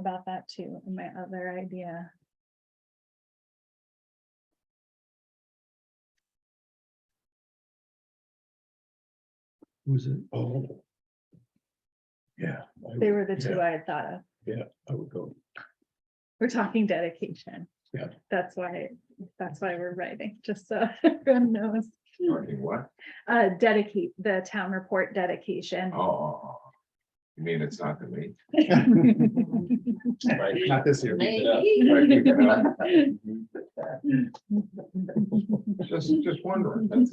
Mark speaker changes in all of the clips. Speaker 1: about that too, in my other idea.
Speaker 2: Who's it? Oh. Yeah, I would-
Speaker 1: They were the two I had thought of.
Speaker 2: I would go.
Speaker 1: We're talking dedication.
Speaker 2: Yeah.
Speaker 1: That's why, that's why we're writing, just so everyone knows.
Speaker 3: Starting what?
Speaker 1: Uh, dedicate, the town report dedication.
Speaker 3: Oh, Oh. oh. You mean it's not the week?
Speaker 2: Not this year.
Speaker 3: Just, just wondering. that's-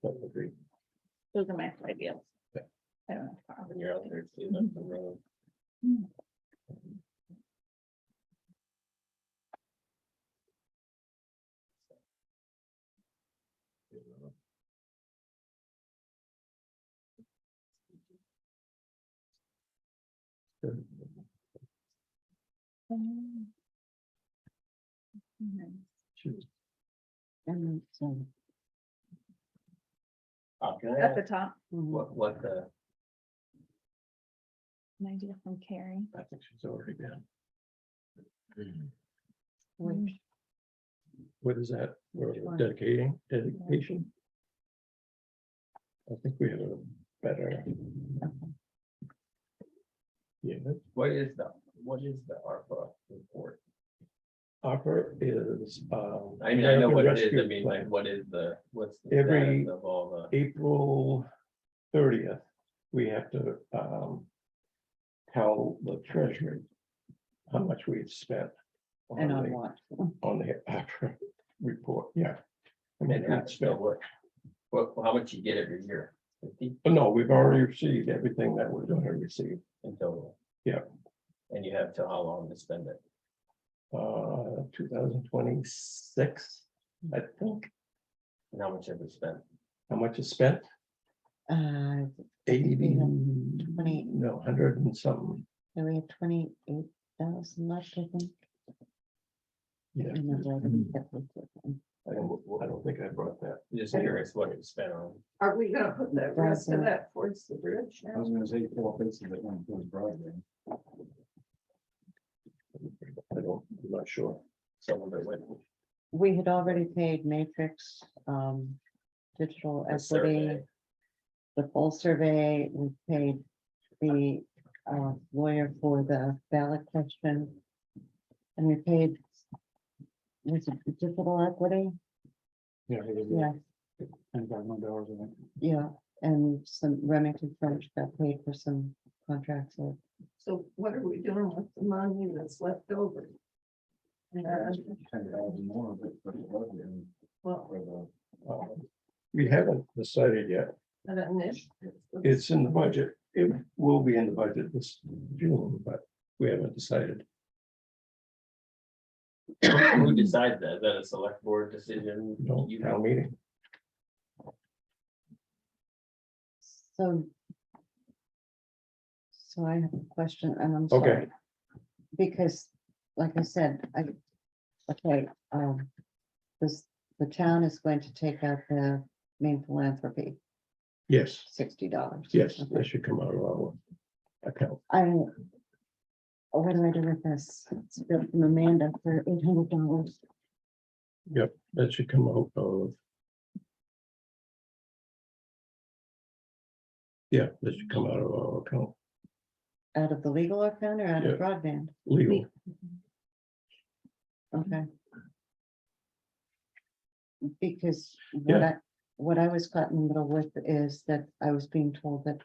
Speaker 2: Totally agree.
Speaker 1: Those are my two ideas.
Speaker 2: Yeah.
Speaker 1: I don't know.
Speaker 4: when you're out there too, that's the road.
Speaker 1: Um, mhm.
Speaker 2: Shoot.
Speaker 4: Uh, can I
Speaker 1: At
Speaker 4: ask
Speaker 1: the top,
Speaker 4: What, what the,
Speaker 1: an idea from Carrie.
Speaker 2: I think she's already been.
Speaker 4: Hmm.
Speaker 2: What is that? We're
Speaker 5: Which one?
Speaker 2: dedicating, dedication? I think we have a better. Yeah,
Speaker 4: what is the, what is the ARPA report?
Speaker 2: offer is, um.
Speaker 4: I mean, I know
Speaker 2: American
Speaker 4: what it is, I
Speaker 2: Rescue
Speaker 4: mean, like,
Speaker 2: Plan.
Speaker 4: what is the, what's the
Speaker 2: Every-
Speaker 4: status of all the,
Speaker 2: April thirtieth, we have to um. Tell the treasury. How much we've spent.
Speaker 5: And on
Speaker 2: the-
Speaker 5: what?
Speaker 2: On the after report, yeah. I mean,
Speaker 4: and how,
Speaker 2: it's,
Speaker 4: so what, what, how much you get every year? Fifty
Speaker 2: but no, we've already received everything that we're gonna receive,
Speaker 4: in total?
Speaker 2: Yeah.
Speaker 4: And you have till how long to spend it?
Speaker 2: uh, two thousand twenty-six, I think.
Speaker 4: And how much have we spent?
Speaker 2: How much is spent?
Speaker 5: Uh, and
Speaker 2: Eighty,
Speaker 5: Twenty.
Speaker 2: no, hundred and something,
Speaker 5: we have twenty-eight thousand left, I think.
Speaker 2: yeah.
Speaker 5: and then the other one
Speaker 4: Mm-hmm.
Speaker 5: that we took in.
Speaker 2: I don't I don't think I brought that.
Speaker 4: Just curious what it spent on.
Speaker 6: Are we gonna put that rest of
Speaker 5: Bridesmaid.
Speaker 6: that towards the bridge
Speaker 3: I
Speaker 6: now?
Speaker 3: was gonna say, four places that went to Broadway.
Speaker 2: I don't, I'm not sure.
Speaker 4: Some of it went,
Speaker 5: We had already paid Matrix, um, Digital
Speaker 4: The
Speaker 5: Equity.
Speaker 4: survey.
Speaker 5: The full survey, we paid the uh, lawyer for the ballot question. And we paid. Was it Digital Equity?
Speaker 3: Yeah. it was
Speaker 5: Yeah,
Speaker 3: $10,000 dollars, I think.
Speaker 5: yeah, and some Remington French got paid for some contracts or
Speaker 6: So what are we doing with the money that's left over? Uh,
Speaker 3: Ten thousand more, but, but it was
Speaker 7: um,
Speaker 3: in,
Speaker 6: Well,
Speaker 3: for the,
Speaker 2: Um, We haven't decided yet.
Speaker 6: an initiative.
Speaker 2: It's in the budget. It will be in the budget this June, but we haven't decided.
Speaker 4: who decides that? Is that a select board decision?
Speaker 2: No
Speaker 4: You
Speaker 2: town meeting.
Speaker 5: So. So I have a question and I'm
Speaker 2: Okay.
Speaker 5: sorry. Because, like I said, I, okay, um, this, the town is going to take out the main philanthropy,
Speaker 2: Yes,
Speaker 5: sixty dollars.
Speaker 2: yes, that should come out of our account.
Speaker 5: I. oh, What do I do with this? It's a bill from Amanda for eight hundred dollars.
Speaker 2: That should come out of. Yeah, that should come out of our account,
Speaker 5: Out of the legal account or out
Speaker 2: Yeah.
Speaker 5: of broadband?
Speaker 2: legal.
Speaker 5: Okay. Because what I, what I was caught in the middle with is that I was being told that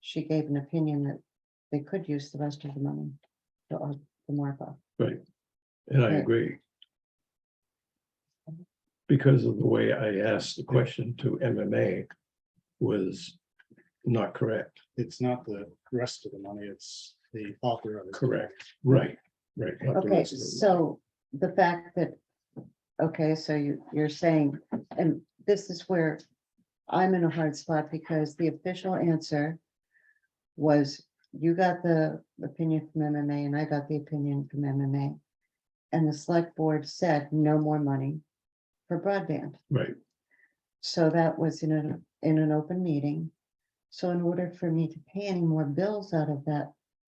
Speaker 5: she gave an opinion that they could use the rest of the money for our- the ARPA.
Speaker 2: And I
Speaker 5: Right.
Speaker 2: agree. Because of the way I asked the question to MMA was not correct.
Speaker 7: it's not the rest of the money, it's the author of it.
Speaker 2: Correct. Right, right. not the
Speaker 5: Okay,
Speaker 2: rest of it.
Speaker 5: so the fact that, okay, so you, you're saying, and this is where I'm in a hard spot because the official answer was you got the opinion from MMA and I got the opinion from MMA. And the select board said no more money for broadband.
Speaker 2: Right,
Speaker 5: So that was in an, in an open meeting. So in order for me to pay any more bills out of that